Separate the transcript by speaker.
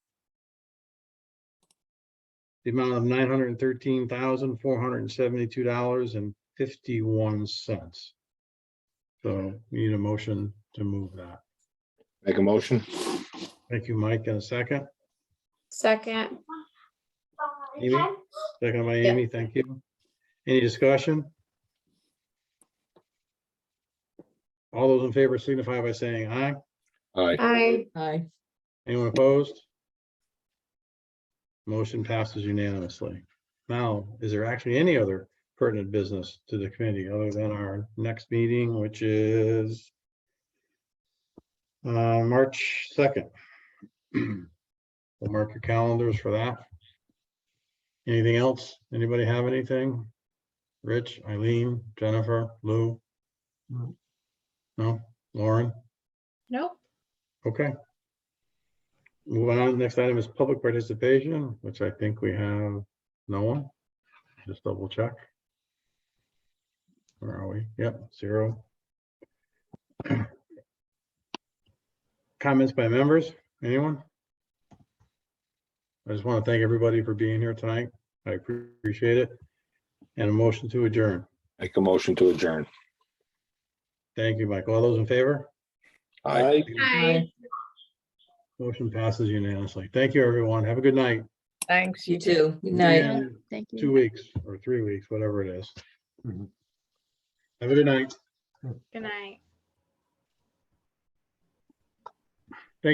Speaker 1: the amount of nine hundred and thirteen thousand, four hundred and seventy-two dollars and fifty-one cents. So we need a motion to move that.
Speaker 2: Make a motion?
Speaker 1: Thank you, Mike, in a second.
Speaker 3: Second,
Speaker 1: Amy, second by
Speaker 3: Yeah.
Speaker 1: Amy, thank you. Any discussion? All those in favor signify by saying aye.
Speaker 2: Aye.
Speaker 3: I,
Speaker 4: Aye.
Speaker 1: Anyone opposed? Motion passes unanimously. Now, is there actually any other pertinent business to the committee other than our next meeting, which is uh, March second? We'll mark your calendars for that. Anything else? Anybody have anything? Rich, Eileen, Jennifer, Lou?
Speaker 4: No.
Speaker 1: No? Lauren?
Speaker 3: nope,
Speaker 1: Okay. Moving on, next item is public participation, which I think we have no one. Just double check. Where are we? Yep, zero. Comments by members, anyone? I just want to thank everybody for being here tonight. I appreciate it. And a motion to adjourn.
Speaker 2: Make a motion to adjourn.
Speaker 1: Thank you, Mike. All those in favor?
Speaker 2: Aye.
Speaker 3: I.
Speaker 1: Motion passes unanimously. Thank you, everyone. Have a good night.
Speaker 4: Thanks, you too. Good night.
Speaker 1: Yeah.
Speaker 3: Thank you.
Speaker 1: two weeks or three weeks, whatever it is.
Speaker 2: Mhm.
Speaker 1: Have a good night.
Speaker 3: Good night.